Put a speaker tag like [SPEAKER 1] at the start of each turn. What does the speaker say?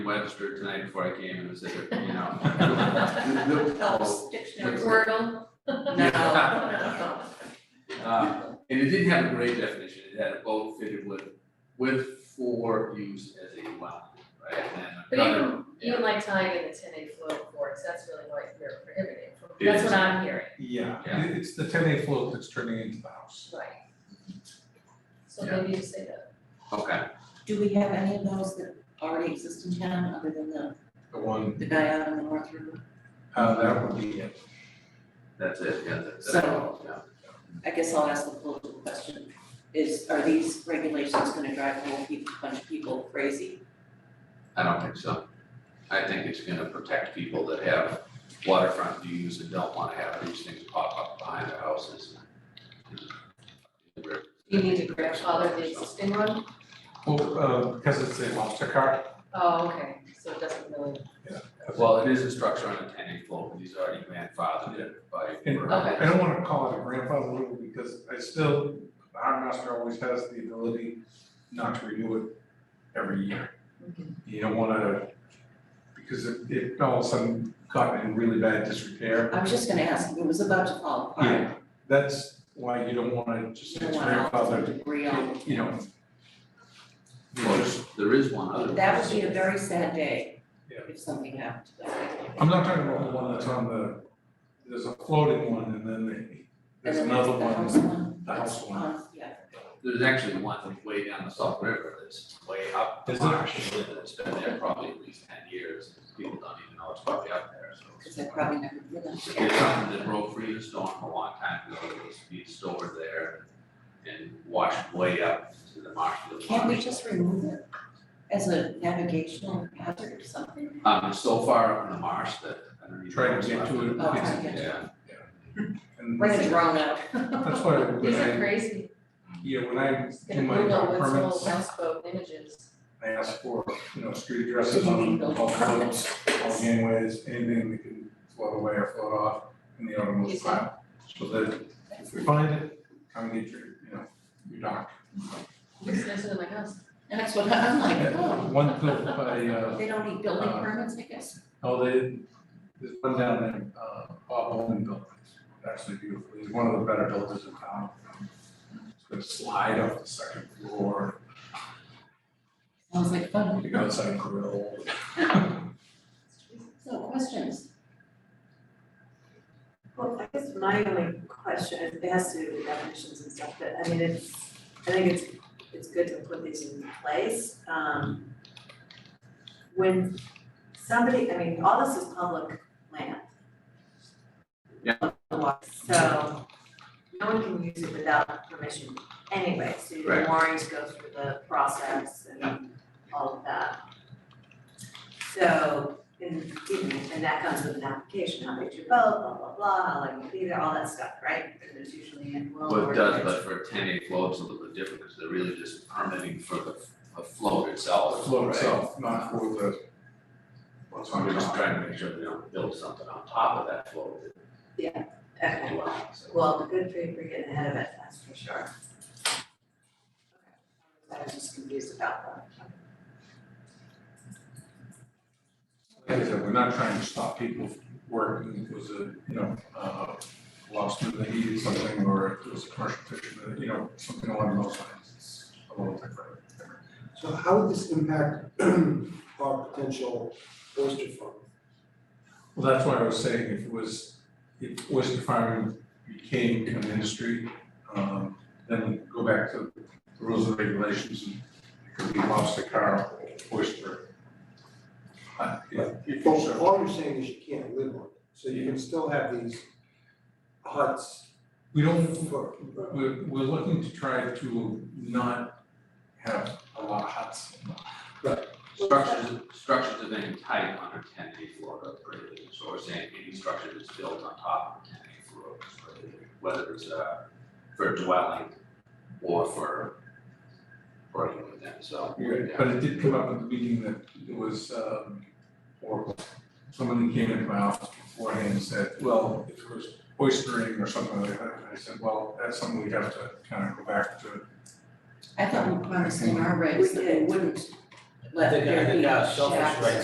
[SPEAKER 1] registered tonight before I came and was there, you know.
[SPEAKER 2] Helps, dictionary, Wordle.
[SPEAKER 1] No. Uh, and it didn't have a great definition, it had a boat fitted with, with for use as a dwelling, right?
[SPEAKER 2] But
[SPEAKER 1] And another-
[SPEAKER 2] even, even like tying in the ten eight float boards, that's really what you're prohibiting, from-
[SPEAKER 1] It
[SPEAKER 2] that's
[SPEAKER 1] is.
[SPEAKER 2] what I'm hearing,
[SPEAKER 3] Yeah,
[SPEAKER 1] Yeah.
[SPEAKER 3] it- it's the ten A float that's turning into the house.
[SPEAKER 2] right? So
[SPEAKER 1] Yeah.
[SPEAKER 2] maybe just say that,
[SPEAKER 1] Okay,
[SPEAKER 4] Do we have any of those that already exist in town other than the,
[SPEAKER 3] The one,
[SPEAKER 4] the guy out on the North River?
[SPEAKER 3] uh, that would be it.
[SPEAKER 1] that's it, yeah, that's. that's
[SPEAKER 4] So-
[SPEAKER 1] all, yeah.
[SPEAKER 4] I guess I'll ask the political question, is, are these regulations gonna drive a whole peop- bunch of people crazy?
[SPEAKER 1] I don't think so. I think it's gonna protect people that have waterfront views and don't wanna have these things pop up behind their houses.
[SPEAKER 2] you need to grandfather the existing one?
[SPEAKER 3] Well, uh, because it's a lobster car,
[SPEAKER 2] Oh, okay, so it doesn't really,
[SPEAKER 1] Well, it is a structure on a ten acre lot, but he's already grandfathered it by.
[SPEAKER 3] And-
[SPEAKER 2] Okay.
[SPEAKER 3] I don't wanna call it a grandfather rule because I still, the harbor master always has the ability not to renew it every year. You don't wanna, because it, it all of a sudden got in really bad disrepair.
[SPEAKER 4] I was just gonna ask, it was about to fall apart,
[SPEAKER 3] That's why you don't wanna
[SPEAKER 4] you
[SPEAKER 3] just
[SPEAKER 4] don't
[SPEAKER 3] it's
[SPEAKER 4] want to
[SPEAKER 3] grandfathered,
[SPEAKER 4] debris on.
[SPEAKER 3] you know.
[SPEAKER 1] Well, there's- there is one other.
[SPEAKER 4] That would be a very sad day
[SPEAKER 3] Yeah.
[SPEAKER 4] if something happened to that.
[SPEAKER 3] I'm not talking about the one that's on the, there's a floating one and then the, there's
[SPEAKER 4] And then
[SPEAKER 3] another
[SPEAKER 4] the house
[SPEAKER 3] one, the
[SPEAKER 4] that's
[SPEAKER 3] house one.
[SPEAKER 4] on- Um, yeah.
[SPEAKER 1] There's actually one way down the Salt River that's way up the
[SPEAKER 3] Is it?
[SPEAKER 1] marsh, and it's been there probably at least ten years, people don't even know it's probably up there, so. it's-
[SPEAKER 4] Cause I probably never did that.
[SPEAKER 1] It's something that broke free of the storm a long time ago, it was being stored there and washed way up to the marsh. to the
[SPEAKER 4] Can't we
[SPEAKER 1] marsh.
[SPEAKER 4] just remove it as a navigational hazard or something?
[SPEAKER 1] Um, it's so far up in the marsh that I don't even.
[SPEAKER 3] Trying to get to it.
[SPEAKER 4] Oh, I
[SPEAKER 3] it's-
[SPEAKER 4] get
[SPEAKER 1] Yeah,
[SPEAKER 3] And
[SPEAKER 4] Bring a drone out.
[SPEAKER 3] that's why
[SPEAKER 2] these are
[SPEAKER 3] when I,
[SPEAKER 2] crazy,
[SPEAKER 3] yeah, when I
[SPEAKER 2] just
[SPEAKER 3] do
[SPEAKER 2] gonna
[SPEAKER 3] my
[SPEAKER 2] Google
[SPEAKER 3] job
[SPEAKER 2] what's old
[SPEAKER 3] permits,
[SPEAKER 2] houseboat images.
[SPEAKER 3] I ask for, you know, street addresses on all floats, all gangways, anything that can float away or float off in the
[SPEAKER 2] You
[SPEAKER 3] automotive
[SPEAKER 2] see?
[SPEAKER 3] file. So that if we find it, come get your, you know, your dock.
[SPEAKER 2] Looks nicer than my house.
[SPEAKER 4] That's what I'm like, oh,
[SPEAKER 3] One built by, uh,
[SPEAKER 4] they don't need building
[SPEAKER 3] Uh,
[SPEAKER 4] permits, I guess.
[SPEAKER 3] Oh, they, there's one down there, uh, Bob Owen built it, actually beautiful, he's one of the better builders in town. It's gonna slide off the second floor,
[SPEAKER 4] I was like, fun.
[SPEAKER 3] you go outside grill.
[SPEAKER 4] So questions?
[SPEAKER 5] Well, I guess my only question, it has to do with definitions and stuff, but I mean, it's, I think it's, it's good to put these in place, um. When somebody, I mean, all this is public land. Yeah. So, no one can use it without permission anyway, so you're
[SPEAKER 1] Right.
[SPEAKER 5] warned to go through the process and all of that. So, and, and that comes with an application, how big's your boat, blah, blah, blah, how long you leave it, all that stuff, right? And there's usually an well
[SPEAKER 1] well,
[SPEAKER 5] or.
[SPEAKER 1] it does, but for ten acre floats, it's a little bit different, because they're really just permitting for the, the float itself,
[SPEAKER 3] Float
[SPEAKER 1] right?
[SPEAKER 3] itself, not for the. What's
[SPEAKER 1] So I'm just trying to make sure they don't build something on top of that float
[SPEAKER 5] Okay.
[SPEAKER 1] as well, so.
[SPEAKER 5] Well, good for you for getting ahead of it, that's for sure. I was just confused about that.
[SPEAKER 3] Like I said, we're not trying to stop people from working, it was a, you know, uh, lost in the heat or something, or it was a commercial fisherman, you know, something along those lines, it's a little different.
[SPEAKER 6] So how would this impact our potential oyster farm?
[SPEAKER 3] Well, that's why I was saying if it was, if oyster farming became an industry, um, then go back to the rules and regulations and it could be lobster car, oyster. Uh, yeah,
[SPEAKER 6] Well, all you're saying is you can't live on it, so you can still have these huts
[SPEAKER 3] We don't,
[SPEAKER 6] for,
[SPEAKER 3] we're, we're looking to try to not have a lot of huts.
[SPEAKER 1] Structures, structures of any type under ten acre float are prohibited, so we're saying any structure that's built on top of a ten acre float is prohibited, whether it's uh for dwelling or for or anything like that, so.
[SPEAKER 3] But it did come up at the meeting that it was, um, or someone that came into my office beforehand and said, well, if it was oystering or something like that, and I said, well, that's something we have to kind of go back to.
[SPEAKER 4] I thought we promised in our regs that we wouldn't let
[SPEAKER 2] I think, I
[SPEAKER 4] there
[SPEAKER 2] think
[SPEAKER 4] be
[SPEAKER 2] our selfish
[SPEAKER 4] shacks.
[SPEAKER 2] rights